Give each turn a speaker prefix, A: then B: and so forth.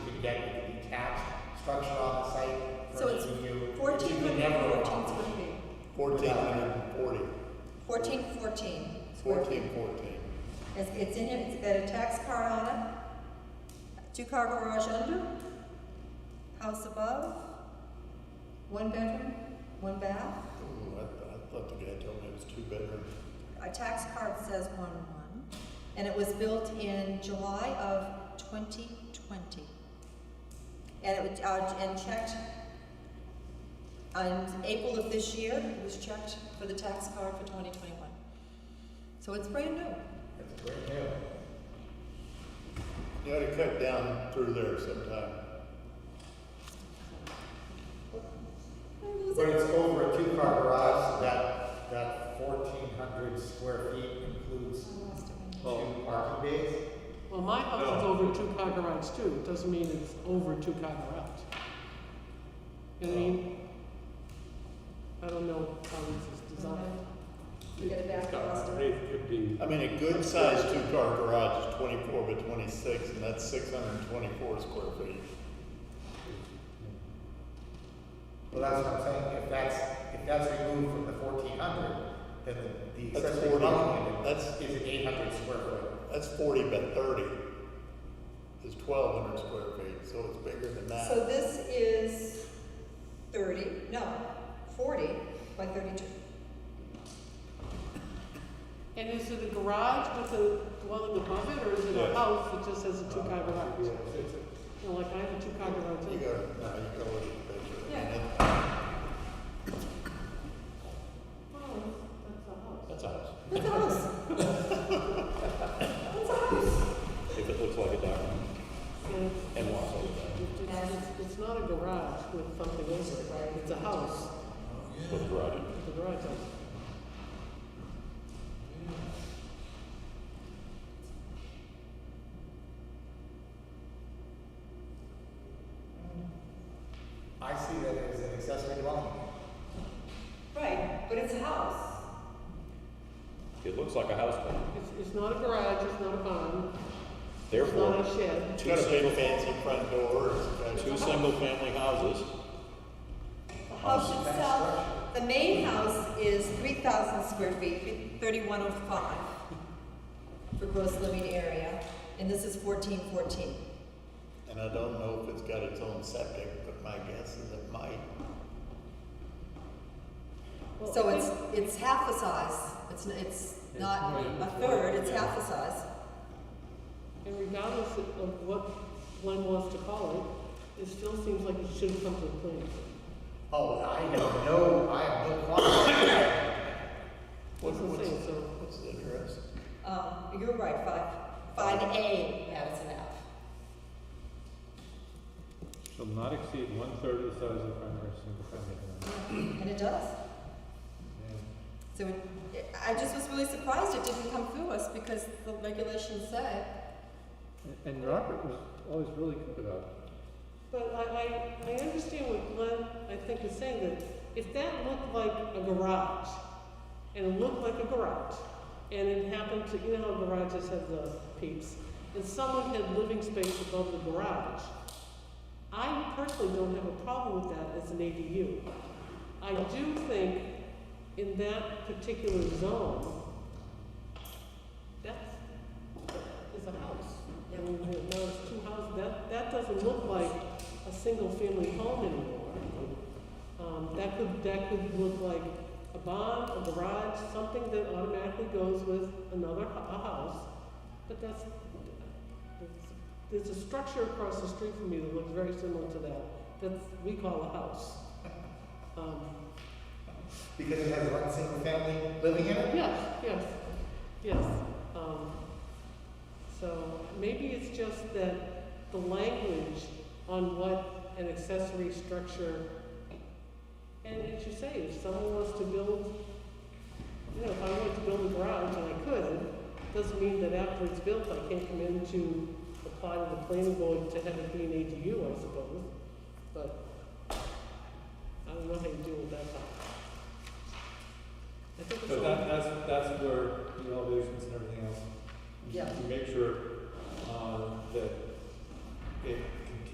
A: deck with a detached structure on the site. for
B: So it's
A: review, which you
B: fourteen
A: could
B: hundred
A: never
B: and fourteen
A: accomplish.
B: square feet.
C: Fourteen hundred and forty.
B: Fourteen fourteen. square feet.
C: Fourteen fourteen.
B: It's, it's in it, it's got a tax card on it, two-car garage under, house above, one bedroom, one bath.
C: Ooh, I, I thought the guy told me it was two bedroom.
B: Our tax card says one one, and it was built in July of twenty twenty. And it was, uh, and checked on April of this year, it was checked for the tax card for twenty twenty-one. So it's brand new.
A: That's great, yeah.
C: You ought to cut down through there sometime.
A: But it's over a two-car garage, so that, that fourteen hundred square feet includes two parking bays.
D: Well, my house is over two car garage too, it doesn't mean it's over two car garage. You know what I mean? I don't know how this is designed.
B: You get it back,
E: It's got
B: Austin.
E: eight fifteen.
C: I mean, a good sized two car garage is twenty-four by twenty-six, and that's six hundred and twenty-four square feet.
A: Well, that's what I'm saying, if that's, if that's removed from the fourteen hundred, then the, the
C: That's
A: accessory
C: 40.
A: dwelling unit
C: That's-
A: is an eight hundred square foot.
C: That's forty by thirty. Is twelve hundred square feet, so it's bigger than that.
B: So this is thirty, no, forty by thirty-two.
D: And is it a garage with a dwelling above it, or is it a
C: Yes.
D: house that just has a two car garage?
E: Yeah, it's- it's-
D: You know, like I have a two car garage.
C: You
D: too.
C: go, no, you go look at the picture.
D: Yeah.
C: And it-
D: Oh, that's a house.
E: That's a house,
B: That's a house. That's a house.
E: if it looks like a dock
D: Yeah, it's-
E: and walks over
D: It's, it's- it's not a garage with something over it, right? It's a house,
E: that, with a garage. in it.
D: it's a garage house.
A: I see that as an accessory dwelling.
B: Right, but it's a house.
E: It looks like a house, but
D: It's, it's not a garage, it's not a barn, it's not
E: therefore,
D: a shed.
C: It's
E: two
C: got a big
E: single,
C: fancy front door, it's got
E: two single family houses,
B: The house itself, the main house is three thousand square feet, thirty-one oh five for gross living area, and this is fourteen fourteen.
C: and I don't know if it's got its own septic, but my guess is it might.
B: So it's, it's half the size, it's, n- it's not a third, it's half the size.
D: And regardless of of what Glenn wants to call it, it still seems like it should have come to the planning.
A: Oh, I have no, I have no qualms.
C: What-
D: What's it
C: what's-
D: saying, so-
C: What's the address?
B: Um, you're right, five, five A Madison Ave.
F: Shall not exceed one-third of the size of the primary single-family dwelling.
B: And it does. So it, I just was really surprised it didn't come through us because the regulations say
F: And- And Robert was always really good about it.
D: But I, I, I understand what Glenn, I think, is saying, that if that looked like a garage, and it looked like a garage, and it happened to, you know how garages have the peeps, and someone had living space above the garage, I personally don't have a problem with that as an ADU. I do think in that particular zone, that's, that is a house. I mean, now it's two houses, that, that doesn't look like a single-family home anymore. Um, that could, that could look like a barn, a garage, something that automatically goes with another, hu- a house. But that's, there's a structure across the street from me that looks very similar to that, that's, we call a house. Um,
A: Because it has one single family living in it?
D: Yes, yes, yes. Um, So maybe it's just that the language on what an accessory structure, and as you say, if someone wants to build, you know, if I wanted to build a garage and I could, doesn't mean that after it's built, I can't come in to apply to the planning board to have it be